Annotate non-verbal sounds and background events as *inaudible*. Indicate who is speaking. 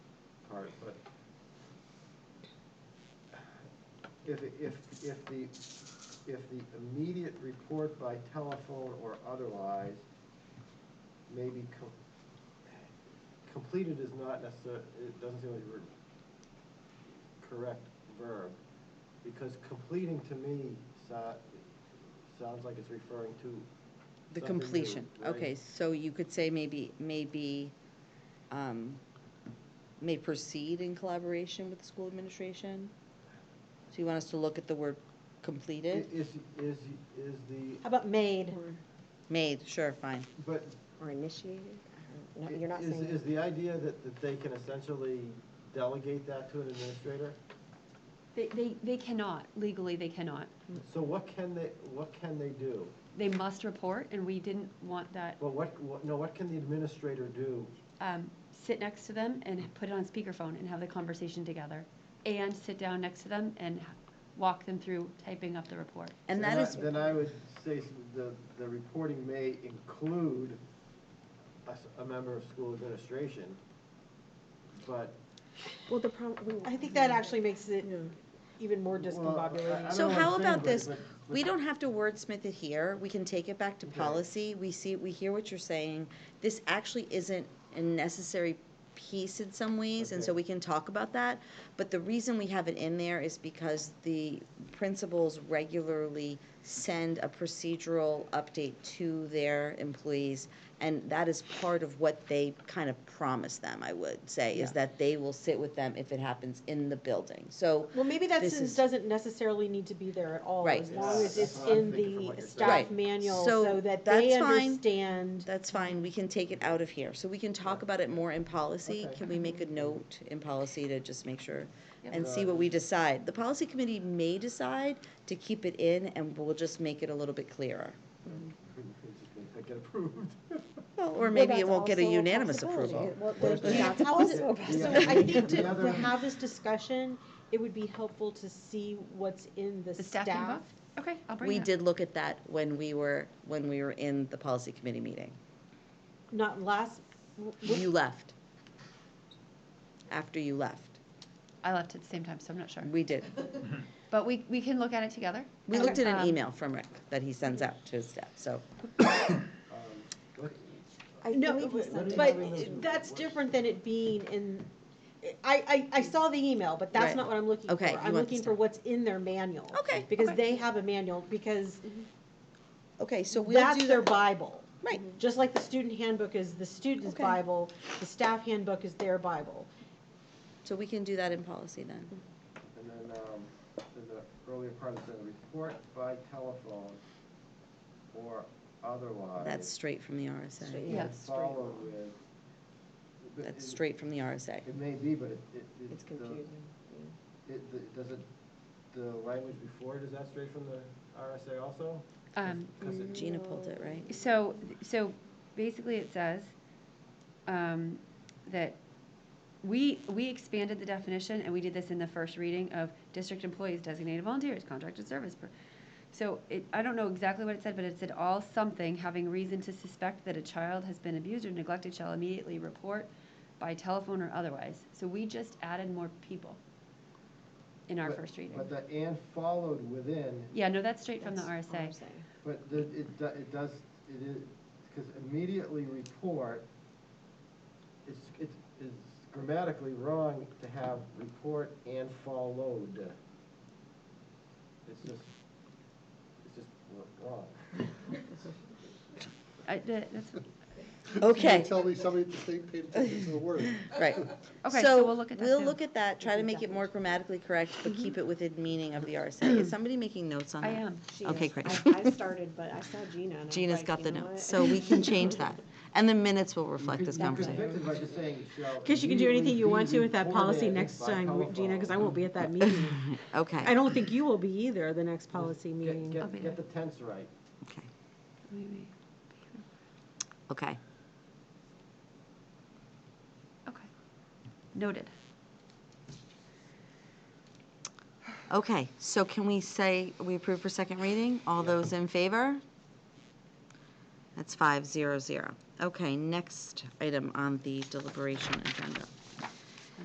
Speaker 1: if, if, if the, if the immediate report by telephone or otherwise may be com- completed is not necessar, it doesn't seem like the ver- correct verb, because completing to me so, sounds like it's referring to
Speaker 2: The
Speaker 1: something new,
Speaker 2: completion, okay,
Speaker 1: right?
Speaker 2: so you could say maybe, maybe, um, may proceed in collaboration with the school administration? So you want us to look at the word
Speaker 1: I-
Speaker 2: completed?
Speaker 1: Is, is, is the,
Speaker 3: How about made?
Speaker 4: Or-
Speaker 2: Made, sure, fine.
Speaker 1: but
Speaker 4: Or initiated? I don't know. You're not
Speaker 1: is,
Speaker 4: saying.
Speaker 1: is the idea that, that they can essentially delegate that to an administrator?
Speaker 5: They, they, they cannot, legally, they cannot.
Speaker 1: So what can they, what can they do?
Speaker 5: They must report, and we didn't want that,
Speaker 1: Well, what, what, no, what can the administrator do?
Speaker 5: um, sit next to them and put it on speakerphone and have the conversation together. And sit down next to them and h- walk them through typing up the report.
Speaker 2: And that
Speaker 1: Then I-
Speaker 2: is,
Speaker 1: Then I would say s- the, the reporting may include a, s- a member of school administration, but.
Speaker 4: Well, the problem.
Speaker 3: I think that actually makes it
Speaker 4: Yeah.
Speaker 3: even more
Speaker 1: Well, I- I don't know
Speaker 3: discombobulated.
Speaker 2: So
Speaker 1: what I'm
Speaker 2: how
Speaker 1: saying, but-
Speaker 2: about this?
Speaker 1: but- but-
Speaker 2: we don't have to wordsmith it here, we can take it back to
Speaker 1: Okay.
Speaker 2: policy, we see, we hear what you're saying. This actually isn't a necessary piece in some ways, and so
Speaker 1: Okay.
Speaker 2: we can talk about that. But the reason we have it in there is because the principals regularly send a procedural update to their employees, and that is part of what they kind of promise them, I would say, is that they will sit with them if it happens in the building. So
Speaker 3: Well, maybe that
Speaker 2: This
Speaker 3: sentence
Speaker 2: is-
Speaker 3: doesn't necessarily need to be there at all,
Speaker 2: Right.
Speaker 3: as long
Speaker 1: Yeah,
Speaker 3: as
Speaker 1: that's
Speaker 3: it's
Speaker 1: what I'm
Speaker 3: in
Speaker 1: thinking from what you're
Speaker 3: the
Speaker 1: saying.
Speaker 3: staff
Speaker 2: Right.
Speaker 3: manual,
Speaker 2: So
Speaker 3: so that they
Speaker 2: that's fine.
Speaker 3: understand.
Speaker 2: That's fine, we can take it out of here, so we can talk about it more in policy,
Speaker 1: Okay.
Speaker 2: can we make a note in policy to just make sure?
Speaker 5: Yep.
Speaker 2: And see what we decide, the policy committee may decide to keep it in, and we'll just make it a little bit clearer.
Speaker 1: That get approved. *laughs*
Speaker 2: Or
Speaker 4: Well,
Speaker 2: maybe
Speaker 4: that's
Speaker 2: it won't get a
Speaker 4: also
Speaker 2: unanimous
Speaker 4: possibility.
Speaker 2: approval.
Speaker 4: Well,
Speaker 1: Well,
Speaker 4: that's-
Speaker 1: yeah.
Speaker 4: that's also
Speaker 1: Yeah.
Speaker 4: a
Speaker 3: So
Speaker 4: possibility.
Speaker 3: I think to,
Speaker 1: The other-
Speaker 3: to have this discussion, it would be helpful to see what's in the
Speaker 5: The staff
Speaker 3: staff.
Speaker 5: handbook? Okay, I'll bring that.
Speaker 2: We did look at that when we were, when we were in the policy committee meeting.
Speaker 3: Not last, w- w-
Speaker 2: You left. After you left,
Speaker 5: I left at the same time, so I'm not sure.
Speaker 2: we did.
Speaker 5: But we, we can look at it together.
Speaker 2: We looked at an
Speaker 5: Um,
Speaker 2: email from Rick that he sends out to his staff, so.
Speaker 1: Um, what-
Speaker 4: I
Speaker 3: no,
Speaker 4: believe he sent
Speaker 1: Let
Speaker 4: it.
Speaker 1: me-
Speaker 3: but
Speaker 1: have it in the-
Speaker 3: that's different than it being in, I, I, I saw the email, but that's
Speaker 2: Right.
Speaker 3: not what I'm looking for.
Speaker 2: Okay, you
Speaker 3: I'm
Speaker 2: want the
Speaker 3: looking for
Speaker 2: staff.
Speaker 3: what's in their manual.
Speaker 2: Okay,
Speaker 3: Because
Speaker 2: okay.
Speaker 3: they have a manual, because
Speaker 2: Okay, so we'll do
Speaker 3: that's their
Speaker 2: the-
Speaker 3: Bible.
Speaker 2: Right.
Speaker 3: Just like the student handbook is the student's
Speaker 2: Okay.
Speaker 3: Bible, the staff handbook is their Bible.
Speaker 2: So we can do that in policy then.
Speaker 1: And then, um, in the earlier part, it said, report by telephone or otherwise.
Speaker 2: That's straight from the RSA.
Speaker 4: Yeah,
Speaker 5: Yeah.
Speaker 4: it's straight.
Speaker 1: Followed with. but
Speaker 2: That's
Speaker 1: it-
Speaker 2: straight from the RSA.
Speaker 1: It may be, but it, it. it-
Speaker 4: It's
Speaker 1: the-
Speaker 4: confusing.
Speaker 1: It, the- does it, the language before it, is that straight from the RSA also?
Speaker 5: Um,
Speaker 1: 'Cause it-
Speaker 2: Gina pulled it, right?
Speaker 5: So, so basically it says um, that we, we expanded the definition, and we did this in the first reading of district employees, designated volunteers, contracted service. per- So it, I don't know exactly what it said, but it said all something having reason to suspect that a child has been abused or neglected shall immediately report by telephone or otherwise. So we just added more people in our
Speaker 1: But-
Speaker 5: first reading.
Speaker 1: But the and followed within,
Speaker 5: Yeah, no, that's straight from the
Speaker 3: That's
Speaker 5: RSA.
Speaker 1: but the, it, do- it does, it is, because immediately report, it's, it's it's grammatically wrong to have report and followed. It's just, it's just wrong.
Speaker 5: I, that- that's,
Speaker 2: Okay,
Speaker 6: Tell me, somebody at the state paid attention to the word.
Speaker 2: *laughs* right.
Speaker 5: okay, so we'll look at that
Speaker 2: We'll
Speaker 5: too. Mm-hmm.
Speaker 2: look at that, try to make it more grammatically correct, but keep it within meaning of the RSA. Is somebody making notes on
Speaker 5: I
Speaker 2: that?
Speaker 5: am.
Speaker 4: She
Speaker 2: Okay,
Speaker 4: is.
Speaker 2: great. *laughs*
Speaker 4: I I started, but I saw Gina and I was
Speaker 2: Gina's
Speaker 4: like,
Speaker 2: got
Speaker 4: you
Speaker 2: the
Speaker 4: know what?
Speaker 2: notes, so we can change that. And the minutes will reflect this
Speaker 1: You could
Speaker 2: conversation.
Speaker 1: fix it by just saying shall
Speaker 3: Because you can do anything you want to with that
Speaker 1: immediately be
Speaker 3: policy
Speaker 1: reported
Speaker 3: next
Speaker 1: by
Speaker 3: time, Gina, because I
Speaker 1: telephone.
Speaker 3: won't be at that meeting.
Speaker 2: *laughs*
Speaker 3: I
Speaker 2: Okay,
Speaker 3: don't think you will be either, the next policy
Speaker 1: Get-
Speaker 3: meeting.
Speaker 5: I'll be
Speaker 1: Get, get the tense right.
Speaker 2: okay,
Speaker 5: Wait, wait.
Speaker 2: okay.
Speaker 5: Okay. Noted.
Speaker 2: Okay, so can we say we approve for second reading? All those in favor? That's five zero zero. Okay, next item on the deliberation agenda.